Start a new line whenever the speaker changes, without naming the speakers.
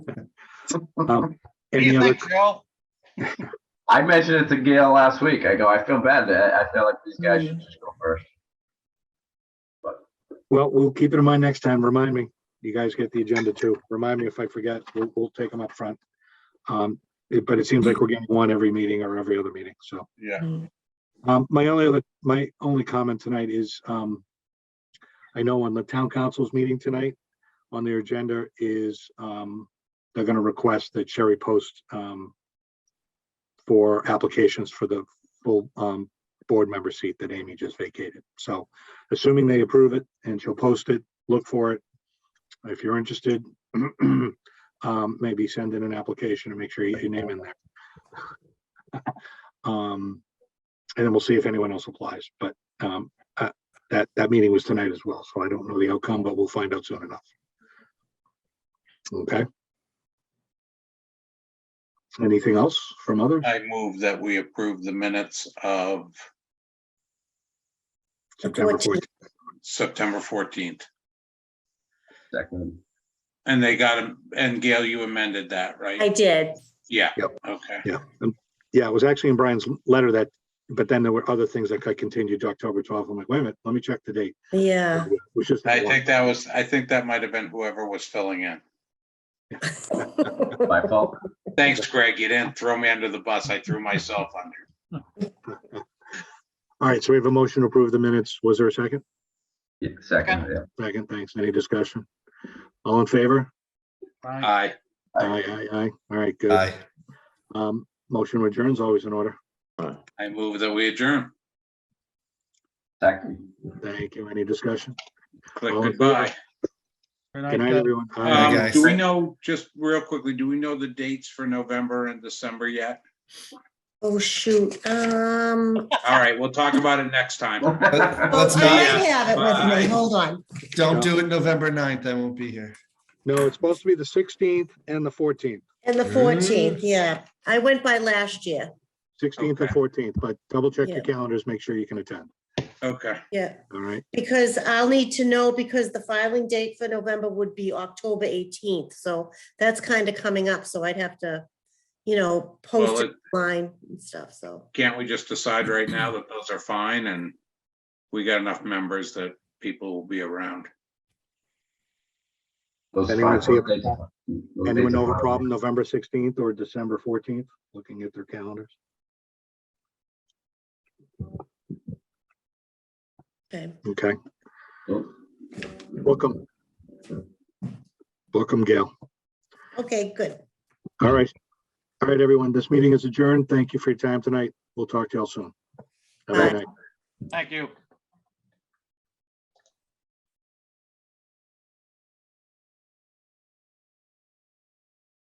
Um,
What do
Any
you
other,
think, Joe?
I mentioned it to Gail last week. I go, I feel bad. I, I feel like these guys
Mm-hmm.
should just go first.
well, we'll keep it in mind next time. Remind me. You guys get the agenda too. Remind me if I forget, we'll, we'll take them up front. Um, it- but it seems like we're getting one every meeting or every other meeting, so.
Yeah.
Um, my only other, my only comment tonight is, um, I know on the town council's meeting tonight, on their agenda is, um, they're gonna request that Sherry post, um, for applications for the full, um, board member seat that Amy just vacated. So assuming they approve it and she'll post it, look for it. If you're interested, um, maybe send in an application and make sure you get your name in there. Um, and then we'll see if anyone else applies, but um, uh, that, that meeting was tonight as well, so I don't know the outcome, but we'll find out soon enough. Okay. Anything else from others?
I move that we approve the minutes of
September
Fourteen.
fourteenth.
September fourteenth.
Second.
And they got them, and Gail, you amended that,
I
right?
did.
Yeah,
Yep.
okay.
Yeah, um, yeah, it was actually in Brian's letter that, but then there were other things that got continued to October twelfth. I'm like, wait a minute, let me check the date.
Yeah.
It was just
I
that one.
think that was, I think that might have been whoever was filling in.
My fault.
Thanks, Greg. You didn't throw me under the bus. I threw myself under.
All right, so we have a motion to approve the minutes. Was there a second?
Yeah, Second, yeah.
Second, thanks. Any discussion? All in favor?
Aye.
Aye, aye, aye. All right, good.
Aye.
Um, motion returns always in order.
I move that we adjourn.
Second.
Thank you. Any discussion?
Click
All in
goodbye.
Good night, everyone. Aye.
Aye,
Um,
guys.
do we know, just real quickly, do we know the dates for November and December yet?
Oh, shoot. Um,
All right, we'll talk about it next time.
oh,
Let's
I
not,
have it with
Bye.
me. Hold on.
don't do it November 9th. I won't be here.
No, it's supposed to be the sixteenth and the fourteenth,
And the
Mm.
fourteenth, yeah. I went by last year.
sixteenth and
Okay.
fourteenth, but double check your
Yeah.
calendars, make sure you can attend.
Okay,
Yeah,
All right,
because I'll need to know because the filing date for November would be October eighteenth. So that's kind of coming up. So I'd have to, you know, post
Well,
it line and stuff. So,
can't we just decide right now that those are fine and we got enough members that people will be around?
Those
Anyone
five
see a-
dates- those
anyone
dates
know of
are
a problem November sixteenth or December fourteenth, looking at their calendars?
okay.
Okay,
fine.
book 'em. Book 'em, Gail.
Okay, good.
All right. All right, everyone, this meeting is adjourned. Thank you for your time tonight. We'll talk to y'all soon. Have a
Bye.
good night.
Thank you.